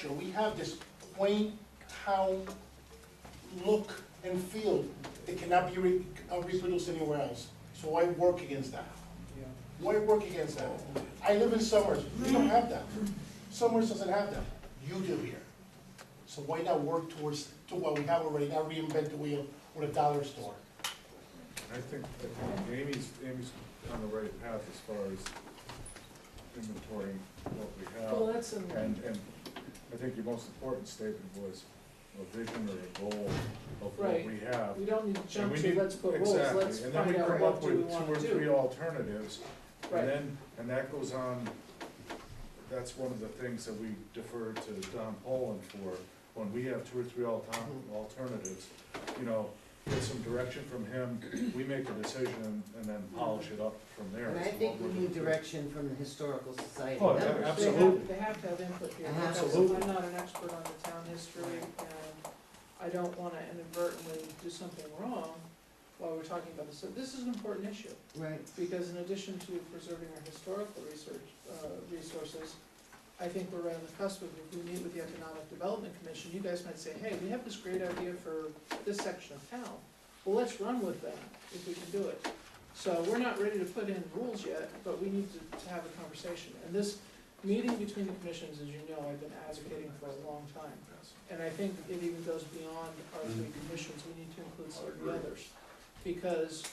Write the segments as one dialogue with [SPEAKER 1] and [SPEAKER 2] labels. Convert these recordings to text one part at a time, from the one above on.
[SPEAKER 1] Sure, we have this quaint town look and feel that cannot be re- uh, reproduced anywhere else. So I work against that? Why work against that? I live in Summers, we don't have that. Summers doesn't have that, you do here. So why not work towards, to what we have already, not reinvent the wheel with a dollar store?
[SPEAKER 2] I think, I think Amy's, Amy's on the right path as far as inventorying what we have.
[SPEAKER 3] Well, that's in-
[SPEAKER 2] And, and I think your most important statement was a vision or a goal of what
[SPEAKER 3] Right.
[SPEAKER 2] we have.
[SPEAKER 3] We don't need to
[SPEAKER 2] And
[SPEAKER 3] jump
[SPEAKER 2] we
[SPEAKER 3] to,
[SPEAKER 2] need-
[SPEAKER 3] let's put rules,
[SPEAKER 2] exactly.
[SPEAKER 3] let's find out what do we
[SPEAKER 2] And then
[SPEAKER 3] wanna
[SPEAKER 2] we come up with two or three
[SPEAKER 3] do.
[SPEAKER 2] alternatives,
[SPEAKER 3] Right.
[SPEAKER 2] and then, and that goes on, that's one of the things that we defer to Don Poland for, when we have two or three alter-
[SPEAKER 3] Mm-hmm.
[SPEAKER 2] alternatives, you know, get some direction from him, we make a decision, and then polish it up from there.
[SPEAKER 4] And I
[SPEAKER 2] is
[SPEAKER 4] think
[SPEAKER 2] what
[SPEAKER 4] we
[SPEAKER 2] we're
[SPEAKER 4] need
[SPEAKER 2] gonna do.
[SPEAKER 4] direction from the historical society
[SPEAKER 2] Oh,
[SPEAKER 4] members.
[SPEAKER 2] yeah,
[SPEAKER 3] They have-
[SPEAKER 2] absolutely.
[SPEAKER 3] They have to have input here, because
[SPEAKER 4] Absolutely.
[SPEAKER 3] I'm not an expert on the town history, and I don't wanna inadvertently do something wrong while we're talking about this. So this is an important issue,
[SPEAKER 4] Right,
[SPEAKER 3] because in addition to preserving our historical research, uh, resources, I think we're right on the cusp of, if we meet with the Economic Development Commission, you guys might say, hey, we have this great idea for this section of town. Well, let's run with that, if we can do it. So we're not ready to put in rules yet, but we need to, to have a conversation. And this meeting between the commissions, as you know, I've been advocating for a long time. And I think it even goes beyond our three commissions, we need to include some of the others. Because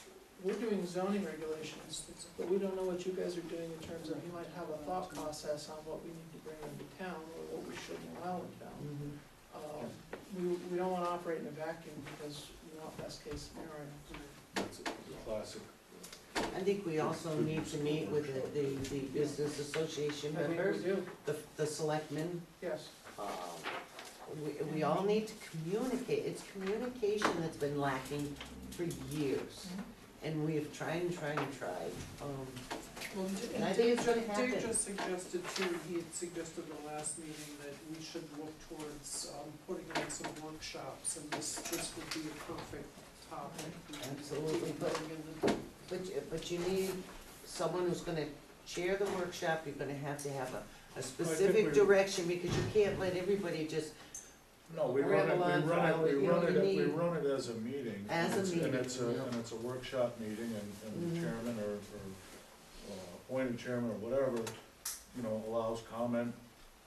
[SPEAKER 3] we're doing zoning regulations, but we don't know what you guys are doing in terms of, you might have a thought process on what we need to bring into town, or what we shouldn't allow in town.
[SPEAKER 4] mhm.
[SPEAKER 3] Uh, we, we don't wanna operate in a vacuum, because we want best case scenario.
[SPEAKER 2] That's a classic.
[SPEAKER 4] I think we also need to meet with the, the, the business association
[SPEAKER 3] I think we
[SPEAKER 4] members,
[SPEAKER 3] do,
[SPEAKER 4] the, the selectmen.
[SPEAKER 3] yes.
[SPEAKER 4] um, We, we all need to communicate, it's communication that's been lacking for years. And we have tried and tried and tried, um,
[SPEAKER 5] Well,
[SPEAKER 4] and I
[SPEAKER 5] and
[SPEAKER 4] think
[SPEAKER 5] Dave,
[SPEAKER 4] it's gonna
[SPEAKER 5] Dave
[SPEAKER 4] happen.
[SPEAKER 5] just suggested too, he had suggested in the last meeting that we should look towards, um, putting on some workshops, and this, this would be a perfect topic. We could
[SPEAKER 4] Absolutely,
[SPEAKER 5] keep
[SPEAKER 4] but-
[SPEAKER 5] going in the-
[SPEAKER 4] But, you- but you need someone who's gonna chair the workshop, you're gonna have to have a, a
[SPEAKER 2] we-
[SPEAKER 4] specific direction, because you can't let everybody just
[SPEAKER 2] No, we run it,
[SPEAKER 4] Rattle
[SPEAKER 2] we
[SPEAKER 4] on
[SPEAKER 2] run
[SPEAKER 4] file,
[SPEAKER 2] it, we
[SPEAKER 4] you
[SPEAKER 2] run
[SPEAKER 4] know,
[SPEAKER 2] it,
[SPEAKER 4] you
[SPEAKER 2] we
[SPEAKER 4] need-
[SPEAKER 2] run it as a meeting.
[SPEAKER 4] As a
[SPEAKER 2] and it's- And
[SPEAKER 4] meeting,
[SPEAKER 2] it's a,
[SPEAKER 4] yeah.
[SPEAKER 2] and it's a workshop meeting and, and the
[SPEAKER 4] Mhm.
[SPEAKER 2] chairman or, or uh, appointed chairman or whatever, you know, allows comment,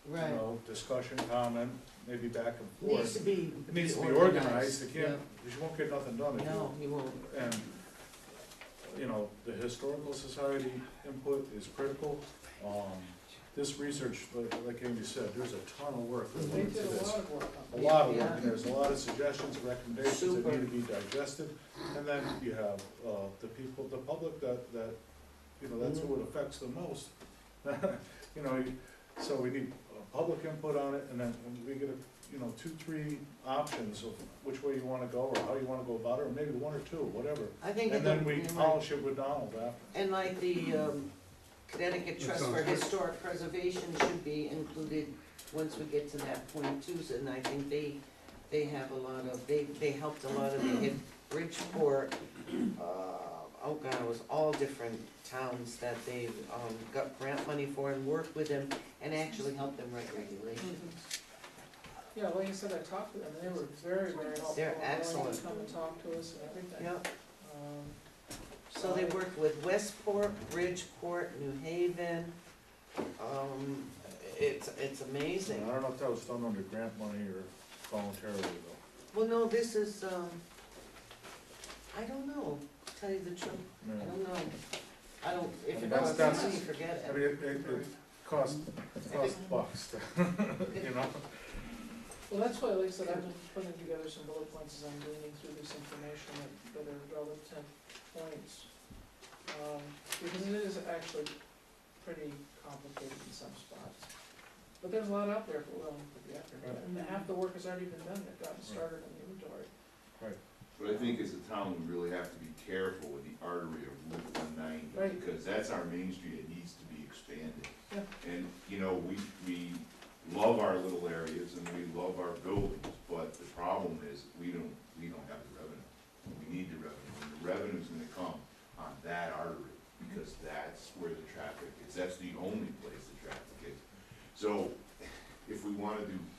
[SPEAKER 2] you
[SPEAKER 4] Right,
[SPEAKER 2] know, discussion, comment, maybe back and
[SPEAKER 4] needs
[SPEAKER 2] forth.
[SPEAKER 4] to be.
[SPEAKER 2] It needs to be organized, it can't,
[SPEAKER 4] yeah.
[SPEAKER 2] because you won't get nothing done if
[SPEAKER 4] No,
[SPEAKER 2] you,
[SPEAKER 4] you won't,
[SPEAKER 2] and, you know, the historical society input is critical. Um, this research, like, like Amy said, there's a ton of work that
[SPEAKER 3] They
[SPEAKER 2] went
[SPEAKER 3] did
[SPEAKER 2] into
[SPEAKER 3] a
[SPEAKER 2] this
[SPEAKER 3] lot of work
[SPEAKER 2] a
[SPEAKER 3] on it.
[SPEAKER 2] lot of
[SPEAKER 4] Yeah.
[SPEAKER 2] work, and there's a lot of suggestions, recommendations that need to be digested. And then you have, uh, the people, the public that, that, you know, that's who it affects the most. You know, you- so we need uh, public input on it, and then we get, a you know, two, three options of which way you wanna go, or how you wanna go about it, or maybe one or two, whatever.
[SPEAKER 4] I think.
[SPEAKER 2] And
[SPEAKER 4] that-
[SPEAKER 2] then we
[SPEAKER 4] you're right.
[SPEAKER 2] polish it with Donald after.
[SPEAKER 4] And like the um, Connecticut
[SPEAKER 6] That
[SPEAKER 4] Trust for
[SPEAKER 6] sounds good.
[SPEAKER 4] Historic Preservation should be included once we get to that point too, and I think they, they have a lot of, they, they helped a lot of, they hit Bridgeport, uh, oh god, it was all different towns that they, um, got grant money for and worked with them and actually helped them write regulations.
[SPEAKER 3] Mm-hmm. Yeah, like I said, I talked to them, they were very, very helpful.
[SPEAKER 4] They're
[SPEAKER 3] willing to
[SPEAKER 4] excellent.
[SPEAKER 3] Come and talk to us and
[SPEAKER 2] Mm-hmm.
[SPEAKER 3] everything.
[SPEAKER 4] Yep,
[SPEAKER 3] Um,
[SPEAKER 4] so they worked with Westport, Bridgeport, New Haven, um, it's, it's amazing.
[SPEAKER 2] And I don't know if that was done under grant money or voluntarily though.
[SPEAKER 4] Well, no, this is, um, I don't know, tell you the truth,
[SPEAKER 2] I
[SPEAKER 4] I
[SPEAKER 2] mean,
[SPEAKER 4] don't know. I don't, if it doesn't,
[SPEAKER 2] That's- that's-
[SPEAKER 4] me, forget
[SPEAKER 2] I
[SPEAKER 4] it.
[SPEAKER 2] mean, it, it, it cost, cost bucks, to- you know?
[SPEAKER 3] Well, that's why, like I said, I've been putting together some bullet points as I'm reading through this information that, that are relevant points. Um, because it is actually pretty complicated in some spots. But there's a lot out there if we're willing to put the effort in, and half the work has already been done, they've gotten started on the inventory.
[SPEAKER 7] But I think as a town, we really have to be careful with the artery of Route one ninety,
[SPEAKER 3] Right.
[SPEAKER 7] because that's our main street, it needs to be expanded.
[SPEAKER 3] Yeah.
[SPEAKER 7] And, you know, we, we love our little areas and we love our buildings, but the problem is, we don't, we don't have the revenue. We need the revenue, and the revenue's gonna come on that artery, because that's where the traffic is, that's the only place the traffic is. So, if we wanna do